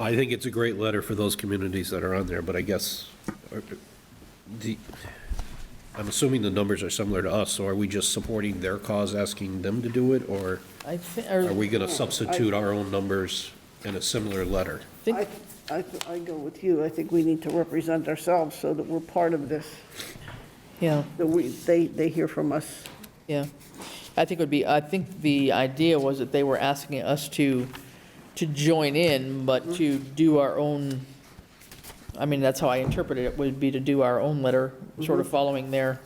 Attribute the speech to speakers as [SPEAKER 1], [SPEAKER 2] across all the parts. [SPEAKER 1] I think it's a great letter for those communities that are on there, but I guess, are- the, I'm assuming the numbers are similar to us, so are we just supporting their cause, asking them to do it, or
[SPEAKER 2] I thi-
[SPEAKER 1] are we going to
[SPEAKER 2] I
[SPEAKER 1] substitute our own numbers in a similar letter?
[SPEAKER 2] think-
[SPEAKER 3] I, I, I go with you. I think we need to represent ourselves so that we're part of this,
[SPEAKER 2] Yeah,
[SPEAKER 3] that we, they, they hear from us.
[SPEAKER 2] yeah. I think it would be, I think the idea was that they were asking us to, to join in, but to do our own, I mean, that's how I interpreted it, would be to do our own letter, sort of following their,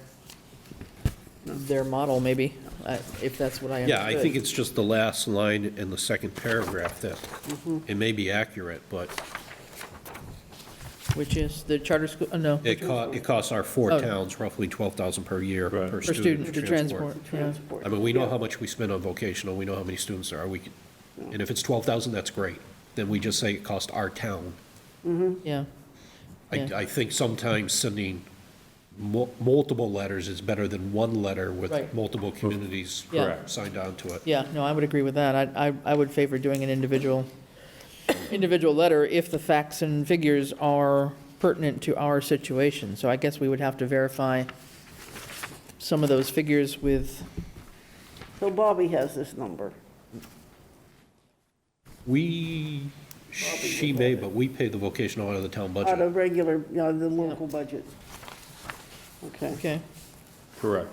[SPEAKER 2] their model, maybe, I- if that's what I understood.
[SPEAKER 1] Yeah, I think it's just the last line in the second paragraph that,
[SPEAKER 2] Mm-hmm.
[SPEAKER 1] it may be accurate, but
[SPEAKER 2] Which is the charter school, oh, no,
[SPEAKER 1] it co, it costs our four
[SPEAKER 2] Oh.
[SPEAKER 1] towns roughly 12,000 per year
[SPEAKER 4] Right.
[SPEAKER 1] per
[SPEAKER 2] for student
[SPEAKER 1] student
[SPEAKER 2] to transport, yeah.
[SPEAKER 3] Transport.
[SPEAKER 1] I mean, we know how much we spend on vocational, we know how many students there are, we, could- and if it's twelve thousand, that's great. Then we just say it cost our town.
[SPEAKER 2] yeah.
[SPEAKER 1] I,
[SPEAKER 2] Yeah.
[SPEAKER 1] I think sometimes sending mul- multiple letters is better than one letter
[SPEAKER 2] Right.
[SPEAKER 1] with multiple communities
[SPEAKER 2] Yeah. Correct.
[SPEAKER 1] signed on to it.
[SPEAKER 2] Yeah, no, I would agree with that. I, I, I would favor doing an individual, individual letter if the facts and figures are pertinent to our situation. So I guess we would have to verify some of those figures with,
[SPEAKER 3] So Bobby has this number.
[SPEAKER 1] We, she may, but we pay the vocational out of the town
[SPEAKER 3] Out
[SPEAKER 1] budget.
[SPEAKER 3] of regular, you know, the local budget. Okay,
[SPEAKER 2] okay,
[SPEAKER 4] Correct.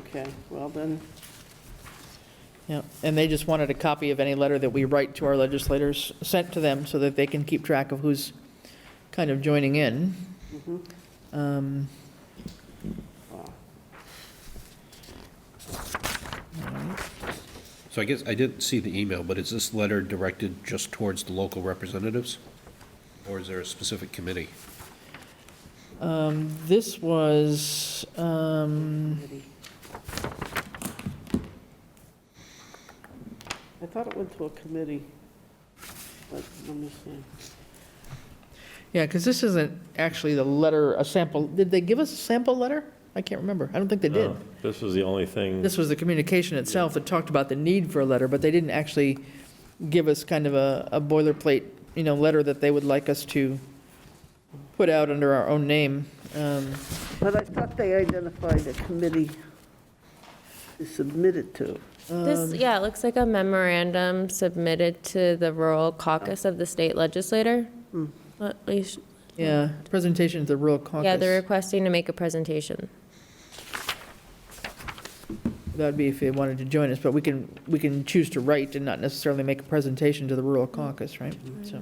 [SPEAKER 3] okay, well then,
[SPEAKER 2] yeah. And they just wanted a copy of any letter that we write to our legislators, sent to them so that they can keep track of who's kind of joining in. Um,
[SPEAKER 1] So I guess, I didn't see the email, but is this letter directed just towards the local representatives? Or is there a specific committee?
[SPEAKER 2] This was, um,
[SPEAKER 3] I thought it went to a committee. But let me see.
[SPEAKER 2] Yeah, because this isn't actually the letter, a sample, did they give us a sample letter? I can't remember. I don't think they did.
[SPEAKER 4] No, Oh, This was the only thing,
[SPEAKER 2] This was the communication itself that talked about the need for a letter, but they didn't actually give us kind of a a boilerplate, you know, letter that they would like us to put out under our own name. Um,
[SPEAKER 3] But I thought they identified a committee to submit it to.
[SPEAKER 5] This, yeah, it looks like a memorandum submitted to the Rural Caucus of the state legislator. At least-
[SPEAKER 2] Yeah, presentation to the rural caucus.
[SPEAKER 5] Yeah, they're requesting to make a presentation.
[SPEAKER 2] That'd be if they wanted to join us, but we can, we can choose to write and not necessarily make a presentation to the rural caucus, right? So,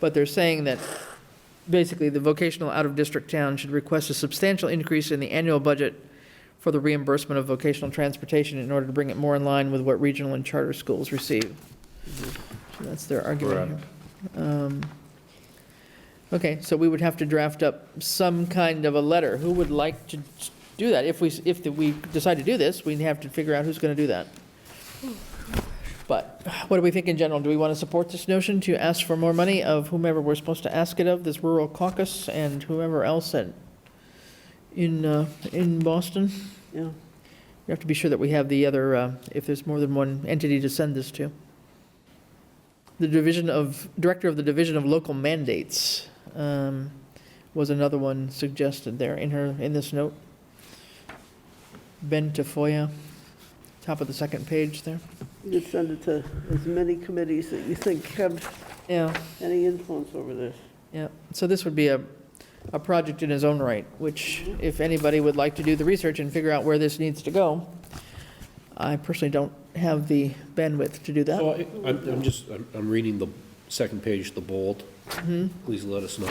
[SPEAKER 2] But they're saying that basically the vocational out-of-district town should request a substantial increase in the annual budget for the reimbursement of vocational transportation in order to bring it more in line with what regional and charter schools receive. So that's their argument. here. Um, Okay, so we would have to draft up some kind of a letter. Who would like to do that? If we, if we decide to do this, we'd have to figure out who's going to do that. But what do we think in general? Do we want to support this notion to ask for more money of whomever we're supposed to ask it of, this rural caucus and whoever else at, in, uh, in Boston?
[SPEAKER 3] Yeah,
[SPEAKER 2] We have to be sure that we have the other, uh, if there's more than one entity to send this to. The division of, Director of the Division of Local Mandates um, was another one suggested there in her, in this note. Ben Tafoya, top of the second page there.
[SPEAKER 3] you could send it to as many committees that you think have
[SPEAKER 2] Yeah,
[SPEAKER 3] any influence over this.
[SPEAKER 2] yeah. So this would be a, a project in its own right, which if anybody would like to do the research and figure out where this needs to go, I personally don't have the bandwidth to do that.
[SPEAKER 1] So I- I'm, I'm just, I'm, I'm reading the second page, the bold. Please let us know.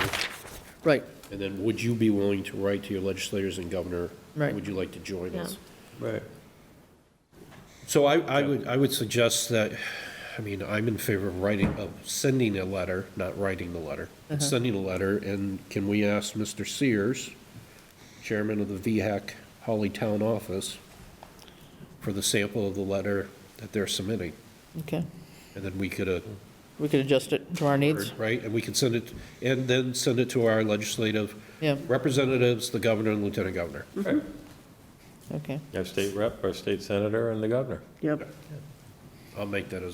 [SPEAKER 2] Right,
[SPEAKER 1] And then would you be willing to write to your legislators and governor?
[SPEAKER 2] Right.
[SPEAKER 1] Would you like to join us?
[SPEAKER 5] Yeah.
[SPEAKER 4] right,
[SPEAKER 1] So I, I would, I would suggest that, I mean, I'm in favor of writing, of sending a letter, not writing the letter. Sending a letter, and can we ask Mr. Sears, chairman of the VHAC Holly Town Office, for the sample of the letter that they're submitting?
[SPEAKER 2] okay.
[SPEAKER 1] And then we could, uh,
[SPEAKER 2] We could adjust it to our needs.
[SPEAKER 1] right? And we can send it, and then send it to our legislative
[SPEAKER 2] Yeah.
[SPEAKER 1] representatives, the governor and lieutenant governor.
[SPEAKER 4] right.
[SPEAKER 2] Okay.
[SPEAKER 4] Our state rep, our state senator, and the governor.
[SPEAKER 3] Yep.
[SPEAKER 1] I'll make that as a